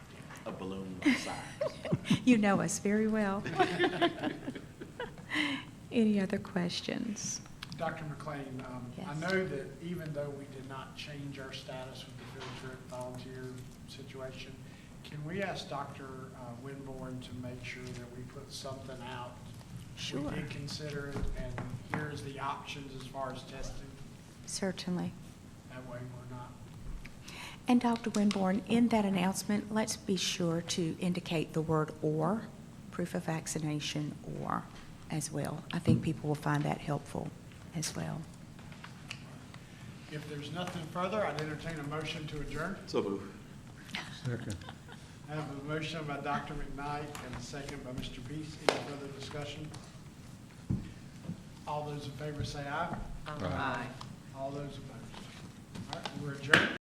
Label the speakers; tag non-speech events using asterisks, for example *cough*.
Speaker 1: signs.
Speaker 2: You know us very well. *laughs* Any other questions?
Speaker 3: Dr. McLean, um, I
Speaker 2: Yes.
Speaker 3: know that even though we did not change our status with the field trip volunteer situation, can we ask Dr. uh, Winborn to make sure that we put something out?
Speaker 2: Sure.
Speaker 3: We did consider it, and here's the options as far as testing.
Speaker 2: Certainly.
Speaker 3: That way we're not,
Speaker 2: And Dr. Winborn, in that announcement, let's be sure to indicate the word "or," proof of vaccination "or" as well. I think people will find that helpful as well.
Speaker 3: if there's nothing further, I'd entertain a motion to adjourn.
Speaker 1: So move.
Speaker 4: Second.
Speaker 3: I have a motion by Dr. McKnight and a second by Mr. Peace. Any further discussion? All those in favor say aye. Aye. All those opposed. All right, we're adjourned.